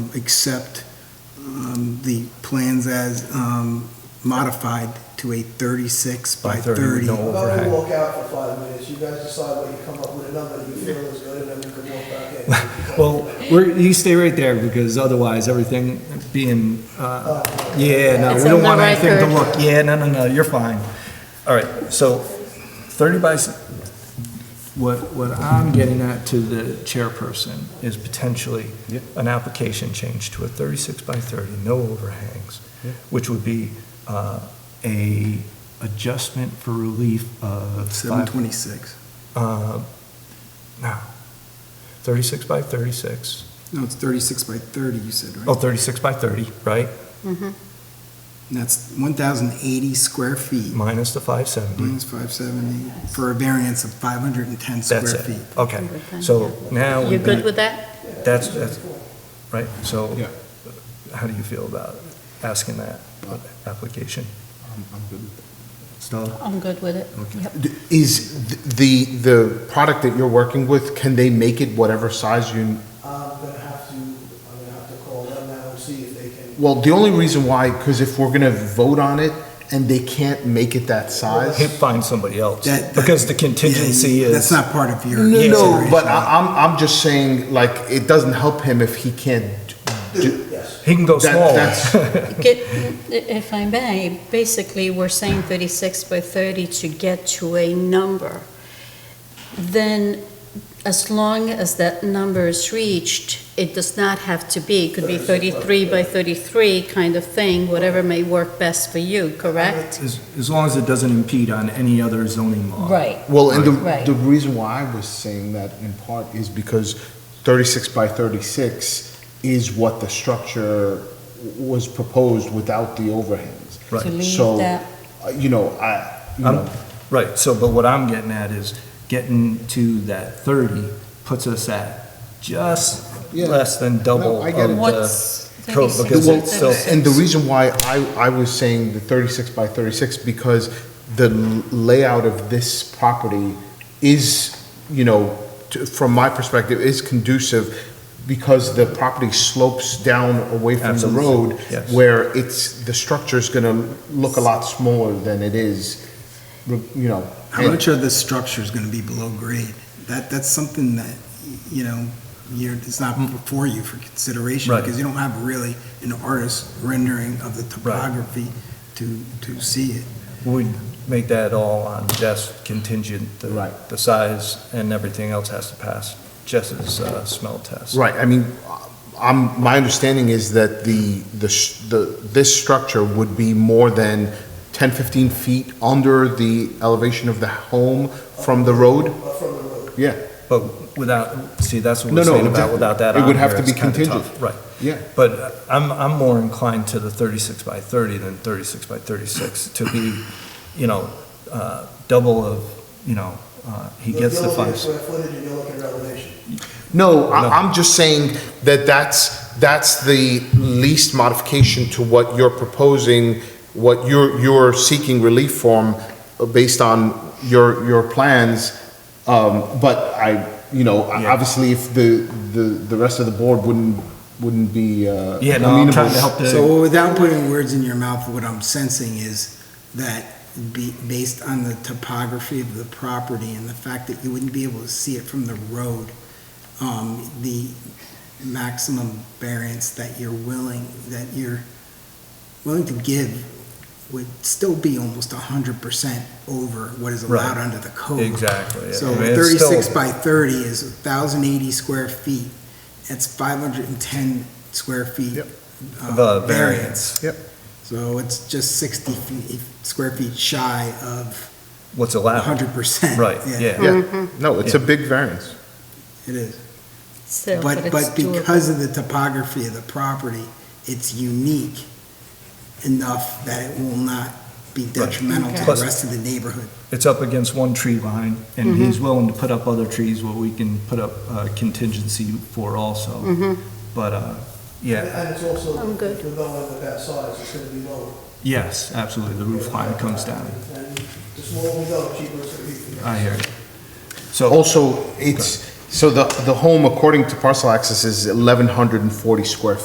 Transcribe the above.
um, accept um, the plans as um, modified to a 36 by By 30 with 30. no Why don't overhang. we walk out for five minutes? You guys decide what you come up with, a number you feel is good, and then we can walk back in. Well, we're, you stay right there, because otherwise, everything being, uh, yeah, no, It's we don't on the want anything to record. look, yeah, no, no, no, you're fine. All right, so thirty by, s- what, what I'm getting at to the chairperson is potentially Yep. an application change to a thirty-six by thirty, no overhangs, Yep. which would be, uh, a adjustment for relief of five 726. uh, no, 36 by 36, No, it's 36 by 30, you said, right? oh, 36 by 30, right, And That's 1,080 square feet, minus the 570. minus 570, for a variance of 510 square Mm-hmm. That's feet. it, okay. So now You we've good got, with that? that's, that's, right, so Yeah. how do you feel about asking that application? I'm, I'm good with that. Stella? I'm good with it. Yep. D- Is th- the, the product that you're working with, can they make it whatever size you, I'm gonna have to, I'm gonna have to call them now and see if they can. well, the only reason why, because if we're gonna vote on it and they can't make it that Hey, size. Find somebody else, That- because the contingency Yeah, is. That's not part of your. No, no, consideration. but I, I'm, I'm just saying, like, it doesn't help him if he can't do. Yes, He can go that- smaller. that's- Get, if I may, basically, we're saying 36 by 30 to get to a number. Then, as long as that number is reached, it does not have to be, it could be 33 by 33 kind of thing, whatever may work best for you, correct? As, as long as it doesn't impede on any other zoning law. Well, and Right. the, the reason why I was saying that in part is because thirty-six by thirty-six is what the structure was proposed without the overhangs. Right. To leave So, that- uh, You know, I, you Um, know, Right, so, but what I'm getting at is getting to that thirty puts us at just Yeah. less than double No, I of get it. the. What's pro- 36 because by well, it's still- 36? and the reason why I, I was saying the thirty-six by thirty-six, because the layout of this property is, you know, to- from my perspective, is conducive because the property slopes down away from the Absolutely, road yes. where it's, the structure's gonna look a lot smaller than it is, you know. How much of this structure is going to be below grade? That, that's something that, you know, you're, it's not before you for consideration, Mm. Right. because you don't have really an artist rendering of the topography to, to see it. We make that all on just contingent, the, Right. the size and everything else has to pass Jess's, uh, smell test. Right, I mean, I'm, my understanding is that the, the, sh- the, this structure would be more than 10, 15 feet under the elevation of the home from the road? uh, from the road. Yeah, But without, see, that's what No, we're no, saying about, exactly. without that It on would have here, to be it's kinda tough. contingent. Right. yeah. But I'm, I'm more inclined to the 36 by 30 than 36 by 36 to be, you know, uh, double of, you know, uh, he You're- gets the You're looking at five. square footage and you're looking at elevation. No, No. I, I'm just saying that that's, that's the least modification to what you're proposing, what you're, you're seeking relief from uh, based on your, your plans. Um, but I, you know, I- Yeah. obviously if the, the, the rest of the board wouldn't, wouldn't be, uh. Yeah, no, I'm trying to help amenable. the- So without putting words in your mouth, what I'm sensing is that be, based on the topography of the property and the fact that you wouldn't be able to see it from the road, um, the maximum variance that you're willing, that you're willing to give would still be almost hundred percent over what is allowed Right. under the code. Exactly. So I mean, it's still- thirty-six by thirty is thousand eighty square feet. That's five hundred and ten square feet. Yep. uh, The variance, So it's just sixty feet, square feet shy of what's allowed. hundred percent. Right, Mm-hmm. yeah. Yeah, no, it's a big variance. It is. Still, But, it's but doable. because of the topography of the property, it's unique enough that it will not be detrimental to Plus- the rest of the neighborhood. It's up against one tree line, and he's willing to put up other trees where we can put up uh, contingency for also. But, uh, And- yeah, And it's also, I'm good. if we're going with that size, it's gonna be lower. yes, absolutely, the roof line comes down. And the smaller we go, the cheaper it's gonna be for you. I hear you. So, Also, it's, so the, the home according to parcel access is 1,140 square